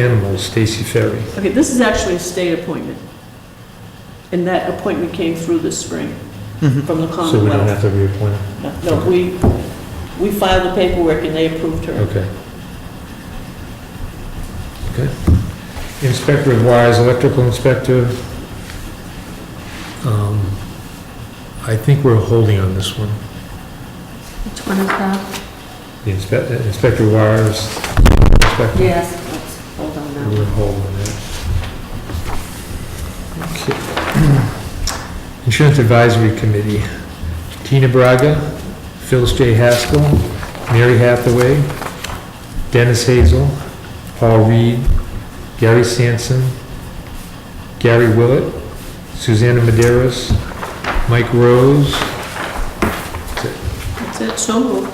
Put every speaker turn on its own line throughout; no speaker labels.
Animals, Stacy Ferry.
Okay, this is actually a state appointment. And that appointment came through this spring from the
Mm-hmm. So we don't
Commonwealth.
have to reappoint her?
No, we, we filed the paperwork and they approved her.
Okay. Okay. Inspector of Wires, electrical inspector. Um, I think we're holding on this one.
Which one is that?
The inspector, Inspector of Wires, inspector.
Yes, let's hold on now.
We're holding that. Okay. Insurance Advisory Committee, Tina Braga, Phyllis J. Haskell, Mary Hathaway, Dennis Hazel, Paul Reed, Gary Sanson, Gary Willett, Susanna Maderos, Mike Rose.
That's it, so moved.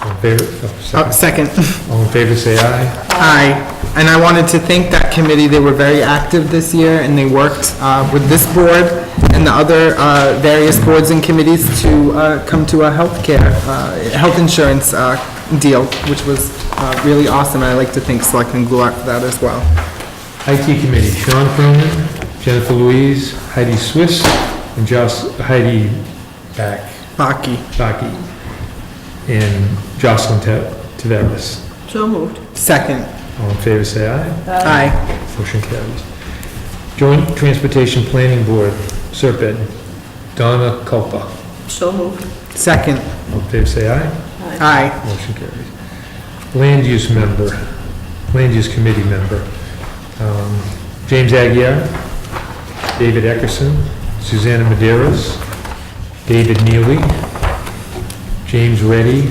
All in favor, oh,
Uh,
sorry.
Second,
All in favor, say aye.
aye. And I wanted to thank that committee, they were very active this year, and they worked uh, with this board and the other uh, various boards and committees to uh, come to a healthcare, uh, health insurance uh, deal, which was uh, really awesome, and I'd like to thank Selectman Gulart for that as well.
IT Committee, Sean Cronin, Jennifer Louise, Heidi Swiss, and Joss, Heidi Back,
Baki,
Baki, and Jocelyn Te- Taveras.
So moved.
second,
All in favor, say aye.
Uh,
aye.
Motion carries. Joint Transportation Planning Board, Serpent, Donna Culpa.
So moved.
Second,
All in favor, say aye.
aye.
Motion carries. Land Use Member, Land Use Committee Member, um, James Aguirre, David Eckerson, Susanna Maderos, David Neely, James Reddy,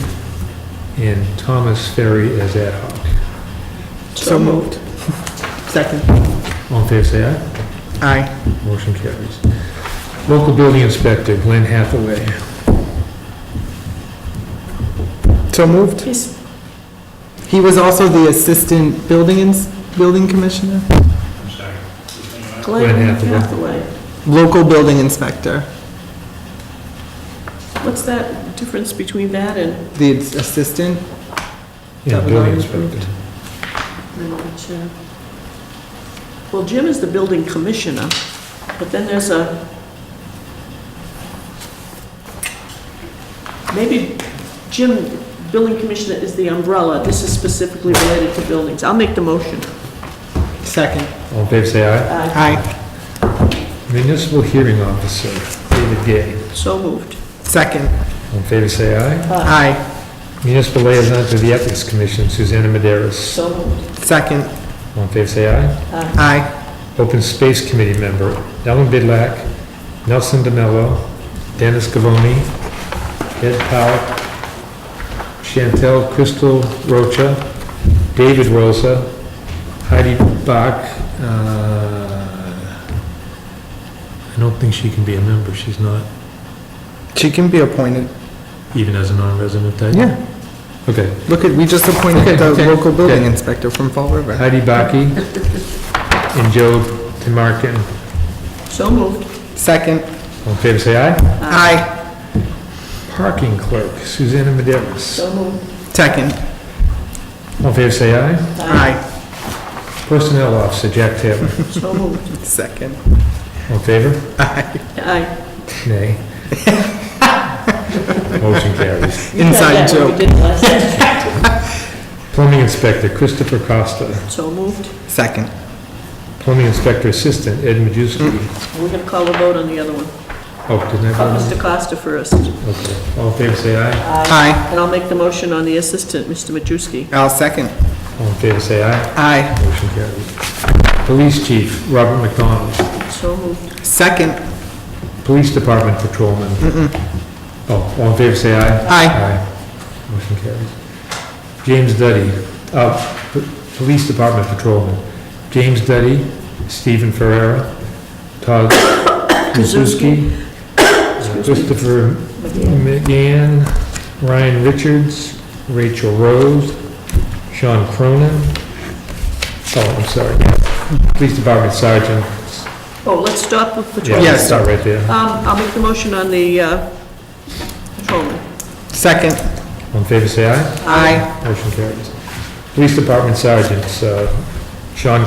and Thomas Ferry as ad hoc.
So moved. Second,
All in favor, say aye.
aye.
Motion carries. Local Building Inspector, Glenn Hathaway.
So moved.
Yes.
He was also the Assistant Building Ins, Building Commissioner?
Glenn
Hathaway.
Hathaway.
Local Building Inspector.
What's that difference between that and,
The assistant?
Yeah,
That was
Building
already
Inspector.
well, Jim is the building commissioner, but then there's a, maybe Jim, building commissioner is the umbrella. This is specifically related to buildings. I'll make the motion.
Second.
All in favor, say aye.
Aye.
Aye.
Municipal Hearing Officer, David Gay.
So moved.
Second.
All in favor, say aye.
Aye.
Municipal liaison to the Ethics Commission, Susanna Maderos.
So moved.
Second.
All in favor, say aye.
Aye.
Open Space Committee member, Ellen Bidlack, Nelson DeMello, Dennis Gavoni, Ed Powell, Chantel Crystal Rocha, David Rosa, Heidi Bach, uh, I don't think she can be a member, she's not
She can be appointed.
even as a non-resident type.
Yeah.
Okay.
Look at, we just
Okay,
appointed the
okay,
local building
okay.
inspector from Fall River.
Heidi Baki and Joe Timarkin.
So moved.
Second.
All in favor, say aye.
Aye.
Parking clerk, Susanna Maderos.
So moved.
Second.
All in favor, say aye.
Aye.
Personnel officer, Jack Taylor.
So moved.
Second.
All in favor?
Aye.
Nay. Motion carries.
You had
Inside
that when
joke.
We did last time.
Plumbing inspector, Christopher Costa.
So moved.
Second.
Plumbing inspector assistant, Ed Majewski.
We're going to call a vote on the other one.
Oh, didn't I
Call
vote?
Mr. Costa first.
Okay. All in favor, say aye.
Aye.
And I'll make the motion on the assistant, Mr. Majewski.
I'll second.
All in favor, say aye.
Aye.
Motion carries. Police chief, Robert McDonald.
So moved.
Second.
Police department patrolman. Oh, all in favor, say aye.
Aye.
Aye. Motion carries. James Duddy, uh, P- Police Department Patrolman. James Duddy, Stephen Ferrera, Todd Krasuski, Christopher McGann, Ryan Richards, Rachel Rose, Sean Cronin. Oh, I'm sorry. Police Department Sergeant.
Oh, let's stop with patrol.
Yeah,
Yes.
start right there.
Um, I'll make the motion on the uh, patrolman.
Second.
All in favor, say aye.
Aye.
Motion carries. Police Department Sergeants, uh, Sean